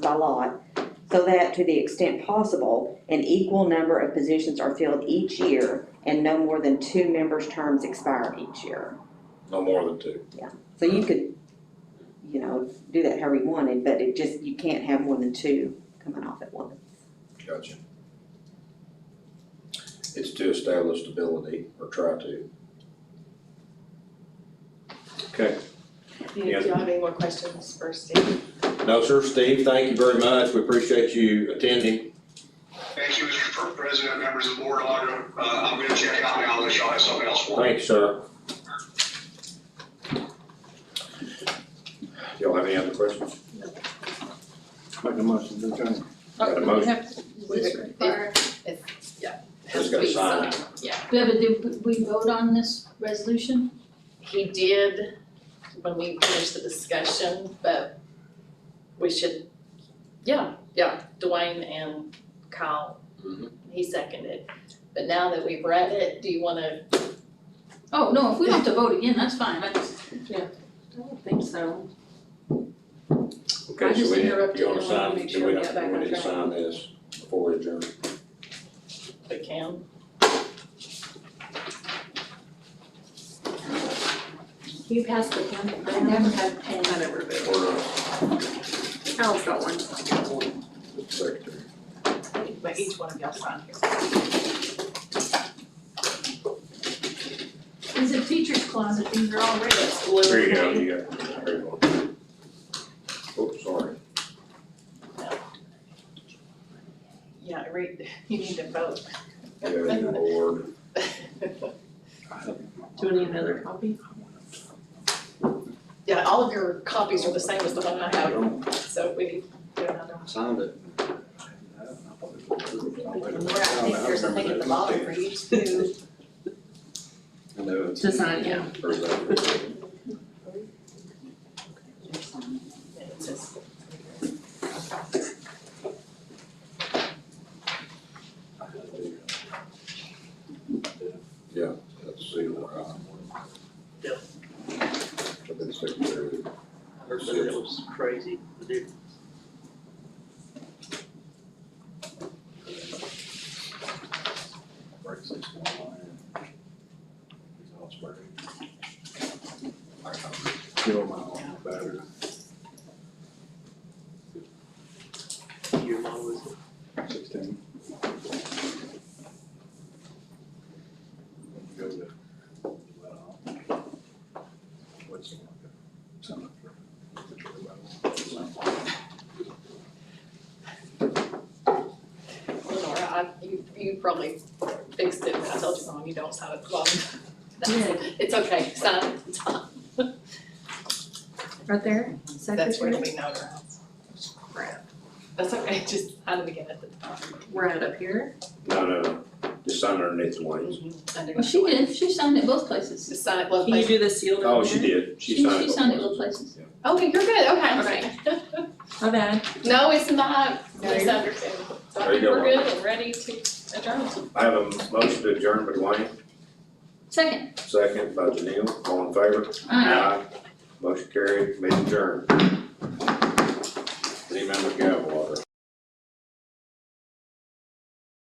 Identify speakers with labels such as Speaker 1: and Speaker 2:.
Speaker 1: by lot, so that to the extent possible, an equal number of positions are filled each year and no more than two members' terms expire each year.
Speaker 2: No more than two.
Speaker 1: So you could, you know, do that however you wanted, but it just, you can't have more than two coming off at once.
Speaker 2: Gotcha. It's to establish stability or try to. Okay.
Speaker 3: Do you do you have any more questions for Steve?
Speaker 2: No, sir, Steve, thank you very much. We appreciate you attending.
Speaker 4: Thank you, Mr. President, members of the board, I'm gonna, uh, I'm gonna check out now unless y'all have something else for me.
Speaker 2: Thank you, sir. Y'all have any other questions?
Speaker 5: Make a motion to adjourn.
Speaker 2: Got
Speaker 6: Oh,
Speaker 2: a motion?
Speaker 7: This require,
Speaker 2: Just gotta sign it.
Speaker 7: Beba, did we vote on this resolution?
Speaker 3: He did when we finished the discussion, but we should, yeah, yeah, Dwayne and Kyle,
Speaker 2: Mhm.
Speaker 3: he seconded. But now that we've read it, do you wanna,
Speaker 7: Oh, no, if we don't have to vote again, that's fine, I just.
Speaker 6: I don't think so. I
Speaker 2: Okay, so
Speaker 6: just
Speaker 2: we, need-
Speaker 6: interrupted
Speaker 2: you wanna
Speaker 6: and wanted to
Speaker 2: sign,
Speaker 6: make
Speaker 2: do
Speaker 6: sure
Speaker 2: we
Speaker 6: we
Speaker 2: not,
Speaker 6: got back
Speaker 2: we
Speaker 6: on
Speaker 2: need to
Speaker 6: track.
Speaker 2: sign this before we adjourn?
Speaker 3: we can?
Speaker 6: You passed the pen. I never had a pen. I never did.
Speaker 2: Or,
Speaker 6: Al's got one.
Speaker 2: uh, secretary?
Speaker 3: But each one of y'all sign here.
Speaker 7: It's a teacher's closet, these are all red.
Speaker 3: It's blue.
Speaker 2: There you go, you got, there you go. Oops, sorry.
Speaker 3: Yeah, read, you need to vote.
Speaker 2: Yeah, Lord.
Speaker 6: Do we need another copy?
Speaker 3: Yeah, all of your copies are the same as the one I have, so we need to do another one.
Speaker 5: Signed it.
Speaker 3: Right, I think there's something at the bottom for you to,
Speaker 5: I know it's.
Speaker 6: To sign, yeah.
Speaker 2: Or is that-
Speaker 3: it says-
Speaker 2: Yeah, that's the one. I've been secretary.
Speaker 8: It was crazy, but it
Speaker 5: Kill my own battery.
Speaker 8: year long was
Speaker 5: Sixteen. Go to, well, what's it like? Some of the- the trailer level.
Speaker 3: Lenora, I, you, you probably fixed it, but I told you wrong, you don't sign at the bottom. That's- It's okay, sign at the top.
Speaker 6: Right there,
Speaker 3: That's where
Speaker 6: secretary.
Speaker 3: we know
Speaker 6: Crap.
Speaker 3: That's okay, just sign it again at the top.
Speaker 6: We're at up here.
Speaker 2: No, no, no, just sign underneath the wings.
Speaker 3: Under-
Speaker 7: Well, she did, she signed it both places.
Speaker 3: Just sign it both
Speaker 6: Can you
Speaker 3: ways.
Speaker 6: do the sealed
Speaker 2: Oh,
Speaker 6: over
Speaker 2: she
Speaker 6: there?
Speaker 2: did, she signed.
Speaker 7: She signed it both places.
Speaker 3: Okay, you're good, okay, okay.
Speaker 6: My bad.
Speaker 3: No, it's not,
Speaker 6: No,
Speaker 3: it's
Speaker 6: you're-
Speaker 3: under two. So I
Speaker 2: There you
Speaker 3: think
Speaker 2: go,
Speaker 3: we're
Speaker 2: Lenora.
Speaker 3: good and ready to adjourn.
Speaker 2: I have a motion to adjourn by Dwayne,
Speaker 7: Second,
Speaker 2: second by Janelle, all in favor?
Speaker 7: aye.
Speaker 2: Motion carried, made adjourn. City member Gavin,